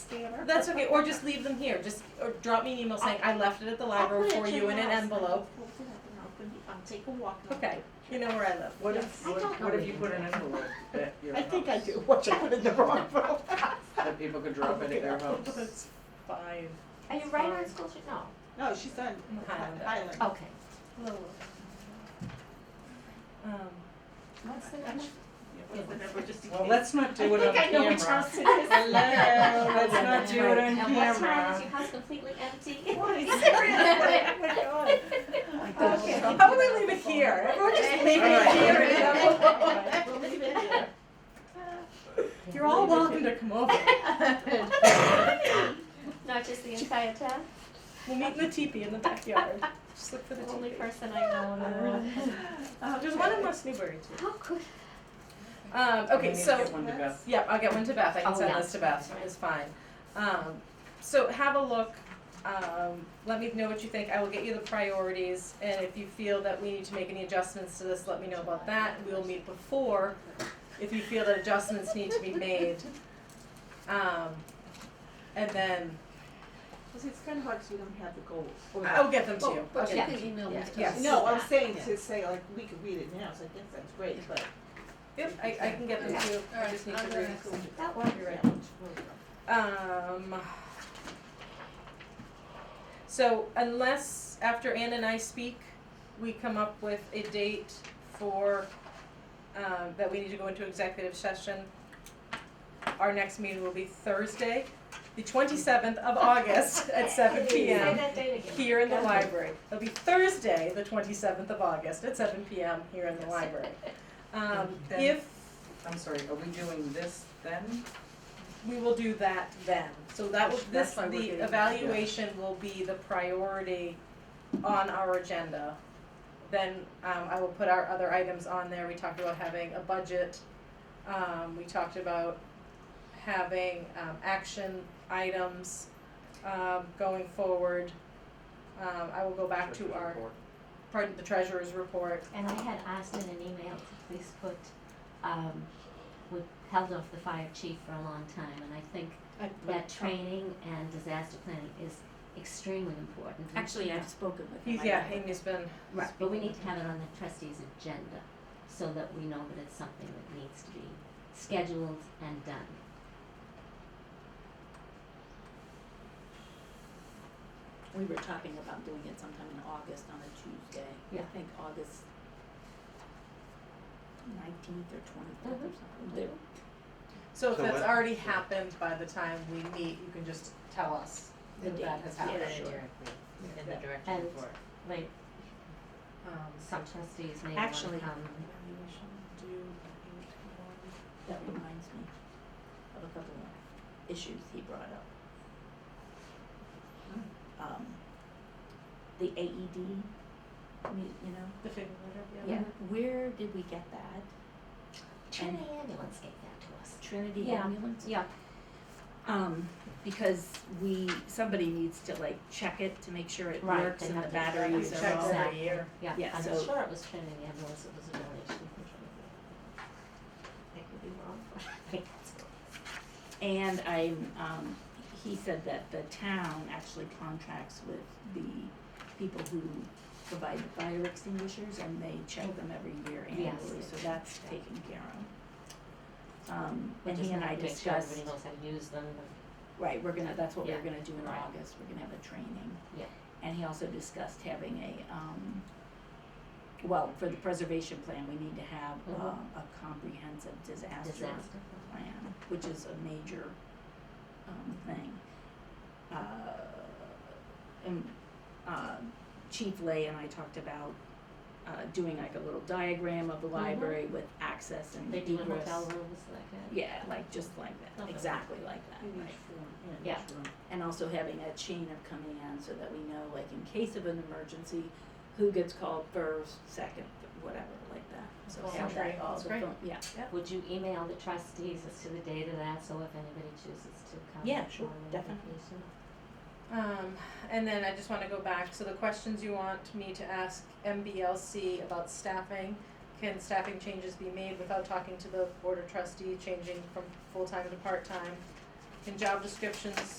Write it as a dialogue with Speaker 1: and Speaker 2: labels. Speaker 1: scanner.
Speaker 2: That's okay, or just leave them here, just, or drop me an email saying, I left it at the library for you in an envelope.
Speaker 1: I'll put it in I'll put it- I'll take a walk. and I'll
Speaker 2: Okay, you know where I live.
Speaker 3: What
Speaker 1: Yes.
Speaker 3: if,
Speaker 1: I
Speaker 3: what
Speaker 1: don't
Speaker 3: what
Speaker 1: know
Speaker 3: if you put an envelope at your
Speaker 1: I
Speaker 3: house?
Speaker 1: think I do, watch, I put it in the wrong room.
Speaker 3: That people could drop it at their house.
Speaker 1: That's fine.
Speaker 4: Are you right on school street? No.
Speaker 1: No, she's on
Speaker 2: In Highland.
Speaker 1: Highland.
Speaker 5: Oh.
Speaker 4: Okay.
Speaker 2: Um,
Speaker 4: What's the next?
Speaker 1: What's the number, just in
Speaker 3: Well,
Speaker 1: case?
Speaker 3: let's not do it on camera.
Speaker 1: I think I know which house it is.
Speaker 3: Hello, let's not do it on
Speaker 4: And what time is
Speaker 3: camera.
Speaker 4: your house completely empty?
Speaker 1: What is it? What- what- what-
Speaker 2: Okay, Oh how about we leave it here? Everyone just leave it here in an envelope.
Speaker 1: We'll leave it there.
Speaker 2: You're all welcome to come over.
Speaker 4: Not just the entire town?
Speaker 2: We'll meet in the teepee in the backyard. Just look for the
Speaker 4: The only
Speaker 2: teepee.
Speaker 4: person I know in the world.
Speaker 2: There's one in West Newbury too.
Speaker 4: How could?
Speaker 2: Um, okay,
Speaker 3: We
Speaker 2: so,
Speaker 3: need to get one to Beth.
Speaker 2: yep, I'll get one to Beth. I can
Speaker 4: Oh,
Speaker 2: send
Speaker 4: yeah.
Speaker 2: this to Beth. It's fine. Um, so have a look. Um, let me know what you think. I will get you the priorities. And if you feel that we need to make any adjustments to this, let me know about that. We will meet before if you feel that adjustments need to be made. Um, and then
Speaker 1: Because it's kind of hard because we don't have the goals.
Speaker 2: I'll get them to you.
Speaker 5: But you
Speaker 4: Yeah.
Speaker 5: could email me.
Speaker 4: Yeah.
Speaker 5: stuff.
Speaker 2: Oh, Yes.
Speaker 1: No, I'm saying to say like, we could read it now, so I think that's great, but.
Speaker 2: Yep, I, I can get them to you. I
Speaker 5: All right,
Speaker 2: just need
Speaker 5: I'm
Speaker 2: to
Speaker 5: gonna-
Speaker 2: read.
Speaker 4: That works.
Speaker 2: You're right. Um, so unless after Ann and I speak, we come up with a date for, um, that we need to go into executive session. Our next meeting will be Thursday, the twenty-seventh of August at seven P
Speaker 4: Say
Speaker 2: M
Speaker 4: that date again.
Speaker 2: here in the library. It'll be Thursday, the twenty-seventh of August at seven P M here in the library. Um,
Speaker 3: Then-
Speaker 2: if,
Speaker 3: I'm sorry, are we doing this then?
Speaker 2: we will do that then. So that will, this,
Speaker 3: That's why we're doing it,
Speaker 2: the
Speaker 3: yeah.
Speaker 2: evaluation will be the priority on our agenda. Then, um, I will put our other items on there. We talked about having a budget. Um, we talked about having, um, action items, um, going forward. Um, I will go back to our, pardon, the treasurer's report.
Speaker 5: And I had asked in an email to please put, um, we held off the fire chief for a long time, and I think
Speaker 2: I put-
Speaker 5: that training and disaster planning is extremely important.
Speaker 6: Actually, I've spoken with him.
Speaker 2: He's,
Speaker 6: I
Speaker 2: yeah,
Speaker 6: know.
Speaker 2: Amy's been,
Speaker 5: Right, but we need to have it on the trustees' agenda, so that we know that it's something that needs to be scheduled and done.
Speaker 6: We were talking about doing it sometime in August on a Tuesday.
Speaker 5: Yeah.
Speaker 6: I think August nineteenth or twenty-fifth or something. There-
Speaker 2: so if
Speaker 7: So
Speaker 2: that's
Speaker 7: what-
Speaker 2: already happened by the time we meet, you can just tell us
Speaker 6: The
Speaker 2: if that
Speaker 6: date.
Speaker 2: has
Speaker 6: Yeah,
Speaker 2: happened.
Speaker 6: sure.
Speaker 7: in the direction
Speaker 5: And,
Speaker 7: for it.
Speaker 5: like,
Speaker 2: Um,
Speaker 5: some trustees may wanna come.
Speaker 2: Actually-
Speaker 6: That reminds me of a couple of issues he brought up. Um, the AED, you you know?
Speaker 2: The figure letter,
Speaker 6: Yeah. Mm-hmm. Where did we get that?
Speaker 5: Trinity ambulance gave that to us.
Speaker 6: Trinity
Speaker 5: Yeah.
Speaker 6: ambulance?
Speaker 5: Yeah,
Speaker 6: Um, because we, somebody needs to like check it to make sure it
Speaker 5: Right,
Speaker 6: works
Speaker 5: they
Speaker 6: and the
Speaker 5: have to check
Speaker 2: Yeah, we
Speaker 6: batteries are
Speaker 2: check
Speaker 6: all.
Speaker 2: every year.
Speaker 5: yeah,
Speaker 6: Yeah,
Speaker 5: I'm
Speaker 6: so-
Speaker 5: sure it was Trinity ambulance, it was a donation from Trinity. I could be wrong, but I think that's what it was.
Speaker 6: And I, um, he said that the town actually contracts with the people who provide the fire extinguishers and they check them every year
Speaker 5: Yes.
Speaker 6: annually, so that's taken care of. Um,
Speaker 5: We
Speaker 6: and
Speaker 5: just
Speaker 6: he and
Speaker 5: have
Speaker 6: I
Speaker 5: to make sure
Speaker 6: discussed,
Speaker 5: Everybody knows how to use them, and-
Speaker 6: right, we're gonna, that's what we're
Speaker 5: Yeah.
Speaker 6: gonna do in
Speaker 5: Right.
Speaker 6: August, we're gonna have a training.
Speaker 5: Yeah.
Speaker 6: And he also discussed having a, um, well, for the preservation plan, we need to have,
Speaker 5: Mhm.
Speaker 6: um, a comprehensive disaster
Speaker 5: disaster.
Speaker 6: plan, which is a major um thing. Uh and uh Chief Lay and I talked about uh doing like a little diagram of the
Speaker 2: Mm-hmm.
Speaker 6: library with access and
Speaker 5: They do in
Speaker 6: egress.
Speaker 5: hotel rooms like that.
Speaker 6: Yeah, like just like that,
Speaker 5: Okay.
Speaker 6: exactly like that,
Speaker 2: Mm-hmm.
Speaker 1: In
Speaker 6: right.
Speaker 1: each room, in
Speaker 5: Yeah.
Speaker 1: each room.
Speaker 6: And also having a chain of command so that we know like in case of an emergency, who gets called first, second, whatever, like that. So
Speaker 2: Well,
Speaker 6: have
Speaker 2: great.
Speaker 6: that all
Speaker 2: That's
Speaker 6: the
Speaker 2: great.
Speaker 6: phone, yeah,
Speaker 5: Would you email the trustees as to the date of that, so if anybody chooses to come?
Speaker 6: Yeah, sure,
Speaker 5: on an
Speaker 6: definitely.
Speaker 5: vacation?
Speaker 2: Um, and then I just wanna go back, so the questions you want me to ask MBLC about staffing, can staffing changes be made without talking to the board of trustee, changing from full-time to part-time? in job descriptions